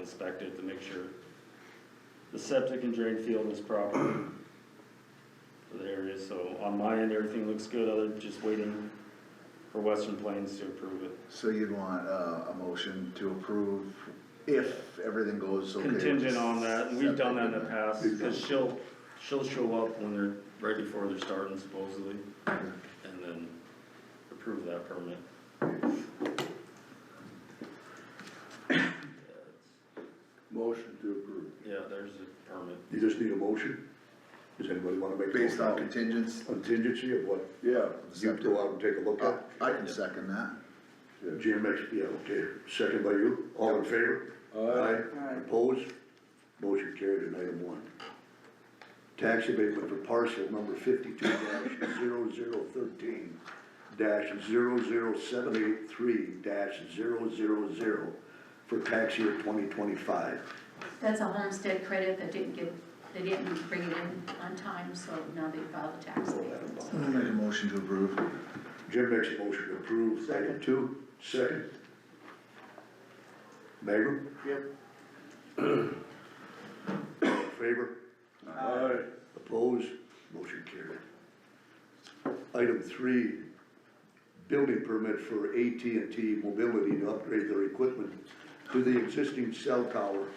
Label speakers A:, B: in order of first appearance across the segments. A: inspect it to make sure the septic and drain field is proper for the area, so on my end, everything looks good, other than just waiting for Western Plains to approve it.
B: So you'd want uh, a motion to approve if everything goes okay? with the
A: Contingent on that, and we've done that in the past,
B: septic
A: cause she'll, she'll show up when they're, right before they're starting supposedly,
B: and the-
A: and then approve that permit.
C: Motion to approve.
A: Yeah, there's a permit.
C: You just need a motion? Does anybody wanna make? a
B: Based on
C: motion?
B: contingents,
C: Contingency of what
B: yeah,
C: you go out and take a look
B: I
C: at?
B: Uh, I can second that.
C: Jim, ex- yeah, okay, second by you, all in favor? Aye. Opposed? Motion carried on item one. Tax abatement for parcel number fifty-two 13 dash 783 dash for tax year twenty twenty-five.
D: That's a homestead credit that didn't get, they didn't bring it in on time, so now they filed the tax. abatement.
B: I'll Make a motion to approve.
C: Jim makes a motion to approve, item two, second. Magrum? Yep. All in favor? Aye. Opposed, motion carried. Item three, building permit for AT&T Mobility to upgrade their equipment to the existing cell tower.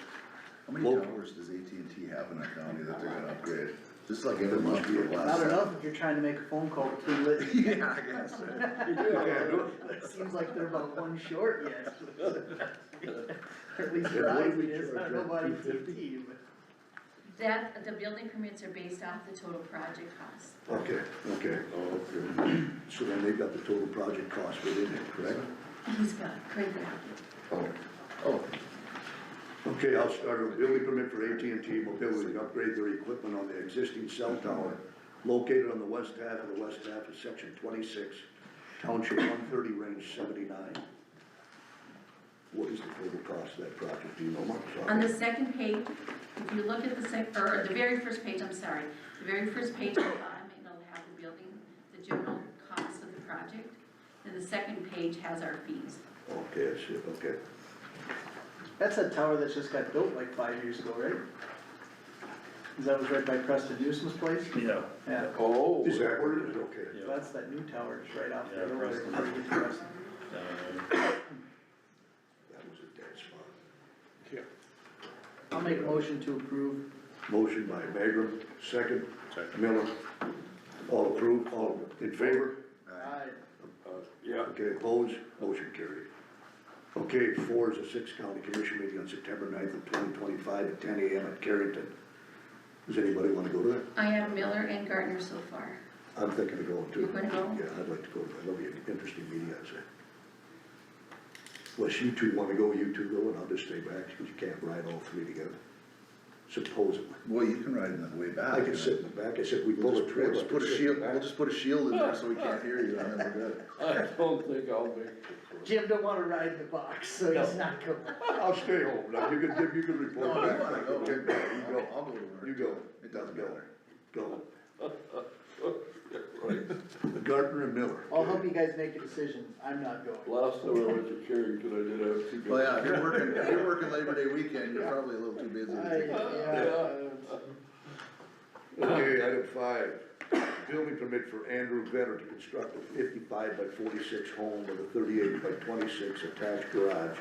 B: How many
C: Well-
B: towers does AT&T have in our county that they're gonna upgrade? Just like every
C: There
B: month
C: must
B: for
C: be
B: the
C: a
E: Not
B: last.
E: enough if you're trying to make a phone call too late.
B: Yeah, I guess.
E: It seems like they're about one short yet. Or At least
C: Yeah,
E: for
C: what
E: I
C: did we
E: it's
C: charge
E: not
C: that,
E: nobody
C: 250?
E: TT, but.
D: That, the building permits are based off the total project cost.
C: Okay, Oh, okay. So then they've got the total project cost within it, correct?
D: He's got credit.
C: Oh.
B: Oh,
C: Okay, I'll start with building permit for AT&T Mobility to upgrade their equipment on the existing cell tower located on the west half of the west half of section twenty-six, township one thirty, range seventy-nine. What is the total cost of that project, do you know, Mark? Sorry.
D: On the second page, if you look at the sec, or the very first page, I'm sorry, the very first page on the bottom, it'll have the building, the general cost of the project. And the second page has our fees.
C: Okay, I see, okay.
E: That's a tower that just got built like five years ago, right? 'Cause that was right by Preston Newsom's place?
A: Yeah.
E: Yeah,
B: Oh.
C: Is that where it is? Okay.
A: Yeah.
E: that's that new tower, it's right out
A: Yeah,
E: there. over there
A: Preston.
E: before you get to Preston.
A: Uh,
C: That was a dead spot.
E: I'll make a motion to approve.
C: Motion by Magrum, second. Miller. All approved, all in favor?
E: Aye.
C: Yeah. Okay, opposed, motion carried. Okay, four is a six county commission meeting on September 9th of twenty twenty-five at ten AM at Carrington. Does anybody wanna go to that?
D: I have Miller and Gardner so far.
C: I'm thinking of going too.
D: You're gonna go?
C: Yeah, I'd like to go, that'll be an interesting meeting, I'd say. Unless you two wanna go, you two go, and I'll just stay back, because you can't ride all three together, supposedly.
B: Well, you can ride in the way back.
C: I can sit in the back, I said, we
B: We'll
C: pull a
B: just, we'll
C: trailer.
B: just put a shield, we'll just put a shield in there so we can't hear you, and then we're good.
F: I don't think I'll be.
E: Jim don't wanna ride in the box, so he's not going.
C: I'll stay home, now you can, you can report
B: No,
C: back.
B: you wanna go,
C: Okay, you
B: I'll
C: go.
B: I'll go to work.
C: You go.
B: It doesn't matter.
C: Go. Gardner and Miller.
E: I'll help you guys make a decision, I'm not going.
F: Last time I went to Carrington, I did have to go.
B: Well, yeah, if you're working, if you're working Labor Day weekend, you're probably a little too busy to
E: I,
B: take it.
E: yeah,
C: Okay, item five, building permit for Andrew Vetter to construct a fifty-five by forty-six home with a thirty-eight by twenty-six attached garage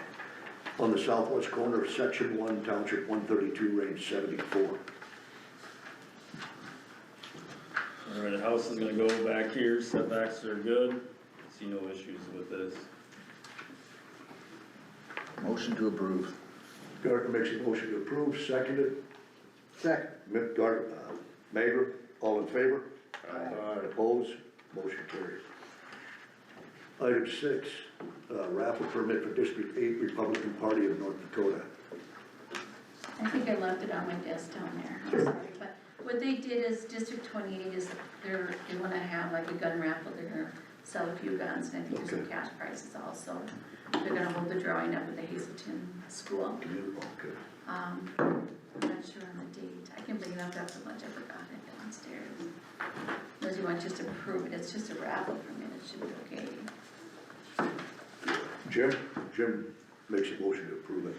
C: on the southwest corner of section one, township one thirty-two, range seventy-four.
A: All right, the house is gonna go back here, setbacks are good, see no issues with this.
B: Motion to approve.
C: Gardner makes a motion to approve, seconded,
E: second.
C: Mick Gardner, uh, Mayor, all in favor? Aye. Opposed, motion carries. Item six, uh, raffle permit for District Eight Republican Party of North Dakota.
D: I think I left it on my desk down there, I'm sorry, but what they did is District twenty-eight is, they're, they wanna have like a gun raffle, they're gonna sell a few guns, and I think there's some
C: Okay.
D: cash prizes also. They're gonna hold the drawing up at the Hazelton School,
C: Okay.
D: um, I'm not sure on the date, I can bring it up after lunch, I forgot it downstairs. Unless you want just to prove it, it's just a raffle permit, it should be okay.
C: Jim, Jim makes a motion to approve it.